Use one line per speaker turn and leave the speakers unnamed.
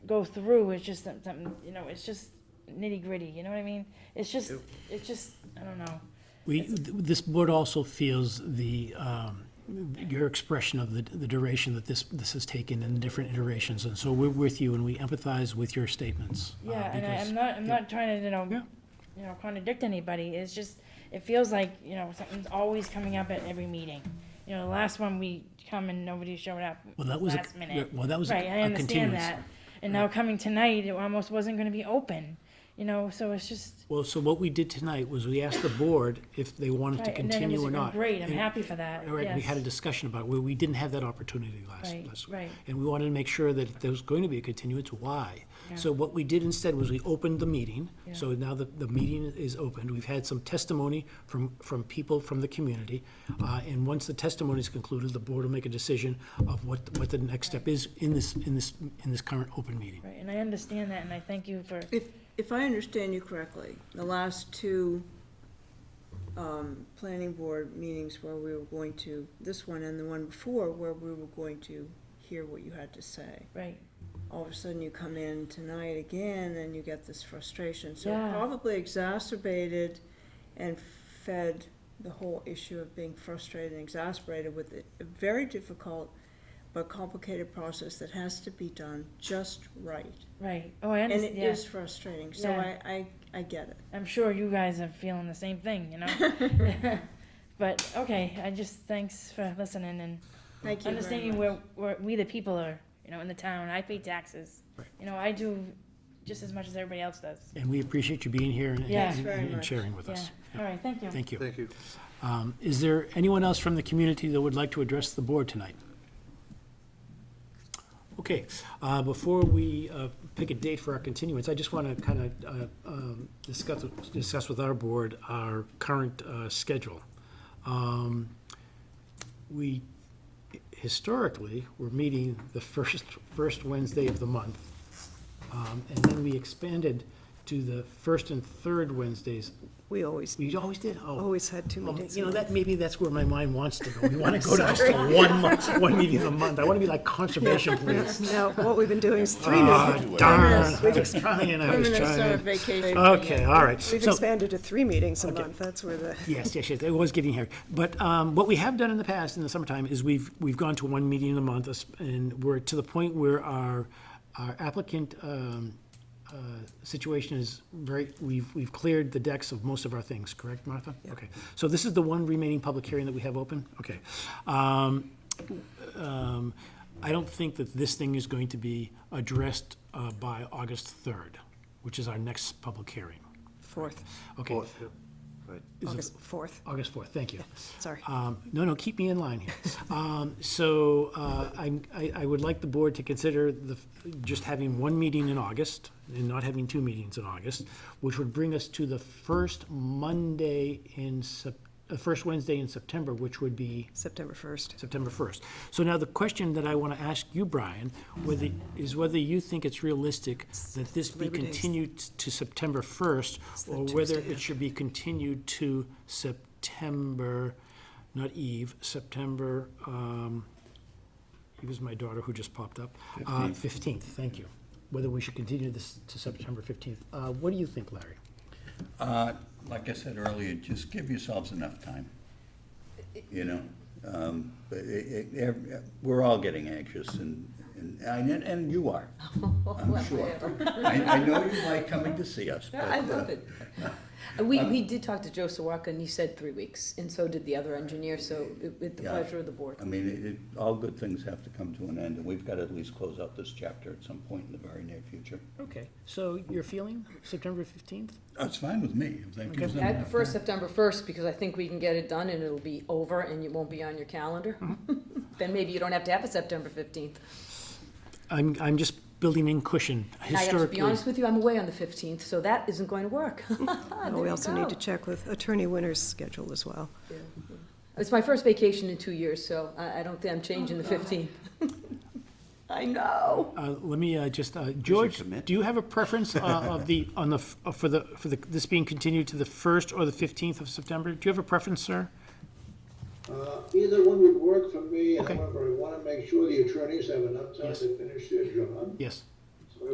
go through, it's just some- something, you know, it's just nitty gritty, you know what I mean? It's just, it's just, I don't
Uh,
know.
We, th- this board also feels the, um, your expression of the the duration that this, this has taken in different iterations, and so we're with you and we empathize with your statements. uh,
Yeah, and I,
because-
I'm not, I'm not trying to, you know,
Yeah.
you know, contradict anybody, it's just, it feels like, you know, something's always coming up at every meeting. You know, the last one, we come and nobody showed up
Well, that was a-
last minute.
yeah, well, that was a-
Right, I
a
understand
continuance.
that, and now coming tonight, it almost wasn't gonna be open, you know, so it's just,
Well, so what we did tonight was we asked the board if they wanted to
right, and then it
continue
was oh,
or not.
great, I'm
And-
happy for that,
All right, we had a
yes.
discussion about, it, where we didn't have that opportunity last,
Right,
last.
right.
And we wanted to make sure that if there was going to be a continuance, why? So what we did instead was we opened the meeting, so now the, the meeting is opened. We've had some testimony from, from people from the community. Uh, and once the testimony is concluded, the board will make a decision of what, what the next step is in this, in this, in this current open meeting.
Right, and I understand that, and I thank you for,
If, if I understand you correctly, the last two um, planning board meetings where we were going to, this one and the one before, where we were going to hear what you had to say.
right,
All of a sudden, you come in tonight again and you get this frustration. So
Yeah.
it probably exacerbated and fed the whole issue of being frustrated and exasperated with a a very difficult but complicated process that has to be done just right.
right, oh, I
And it
understand, yeah.
is frustrating, so
Yeah.
I, I, I get it.
I'm sure you guys are feeling the same thing, you know? But, okay, I just, thanks for listening and
Thank you very
understanding
much.
where, where we the people are, you know, in the town, I pay taxes. You know, I do just as much as everybody else does.
And we appreciate you being here and,
Yeah. Thanks
and-
very
and
much.
sharing with
Yeah,
us.
all right, thank you.
Thank you.
Thank you.
Um, Is there anyone else from the community that would like to address the board tonight? Okay, uh, before we uh, pick a date for our continuance, I just want to kind of um, discuss, discuss with our board our current uh, schedule. Um, We historically were meeting the first, first Wednesday of the month. Um, And then we expanded to the first and third Wednesdays.
We always,
We always did, oh.
always had two
Well,
meetings.
You know, that, maybe that's where my mind wants to go. We want to go down to one month, one meeting a month. I want to be like conservation police.
No, what we've been doing is three
Ah,
meetings.
darn, I was trying, I
We're
was
in a summer
trying.
vacation.
Okay, all right.
We've
So,
expanded to three meetings a month, that's where the,
yes, yes, yes, it was getting hairy. But um, what we have done in the past, in the summertime, is we've, we've gone to one meeting a month, us- and we're to the point where our, our applicant um, uh, situation is very, we've, we've cleared the decks of most of our things, correct, Martha? Okay, so this is the one remaining public hearing that we have open? Okay. Um, um, I don't think that this thing is going to be addressed uh, by August 3rd, which is our next public hearing.
fourth,
Okay, Is it-
August fourth,
August 4th, thank you.
sorry.
Um, No, no, keep me in line here. Um, So uh, I'm- I I would like the board to consider the, just having one meeting in August and not having two meetings in August, which would bring us to the first Monday in, Sep- uh, first Wednesday in September, which would be
September first.
September 1st. So now the question that I want to ask you, Brian, whether, is whether you think it's realistic that this be
Labor Day.
continued to September 1st,
the
or whether
Tuesday
it should be continued to September, not Eve, September, um, Eve is my daughter who just popped up, Uh, 15th, thank you. Whether we should continue this to September 15th. Uh, What do you think, Larry?
Uh, Like I said earlier, just give yourselves enough time, you know? Um, but it- it- ev- We're all getting anxious, and, and, and and you are,
Oh,
I'm sure. I, I know you like coming to see us, but.
I love
uh,
it. We, we did talk to Joe Sawaka, and he said three weeks, and so did the other engineer, so it- with the
Yeah.
pleasure of the board.
I mean, it- it, all good things have to come to an end, and we've got to at least close out this chapter at some point in the very near future.
Okay, so your feeling, September 15th?
That's fine with me, if that gives them
I
enough
prefer
time.
September first, because I think we can get it done, and it'll be over, and it won't be on your calendar. Then maybe you don't have to have a September fifteenth.
I'm, I'm just building in cushion
I have to be
historically.
honest with you, I'm away on the fifteenth, so that isn't going to work.
Ah,
We also need to
check.
check with Attorney Winter's schedule as well.
It's my first vacation in two years, so I, I don't think I'm changing the fifteenth. I know.
Uh, Let me uh, just, uh, George,
commit.
do you have a preference uh, of the, on the, f- uh, for the, for the, this being continued to the 1st or the 15th of September? Do you have a preference, sir?
Uh, Either one would work for me,
Okay.
however, I want to make sure the attorneys have enough time
Yes.
to finish their job.
Yes.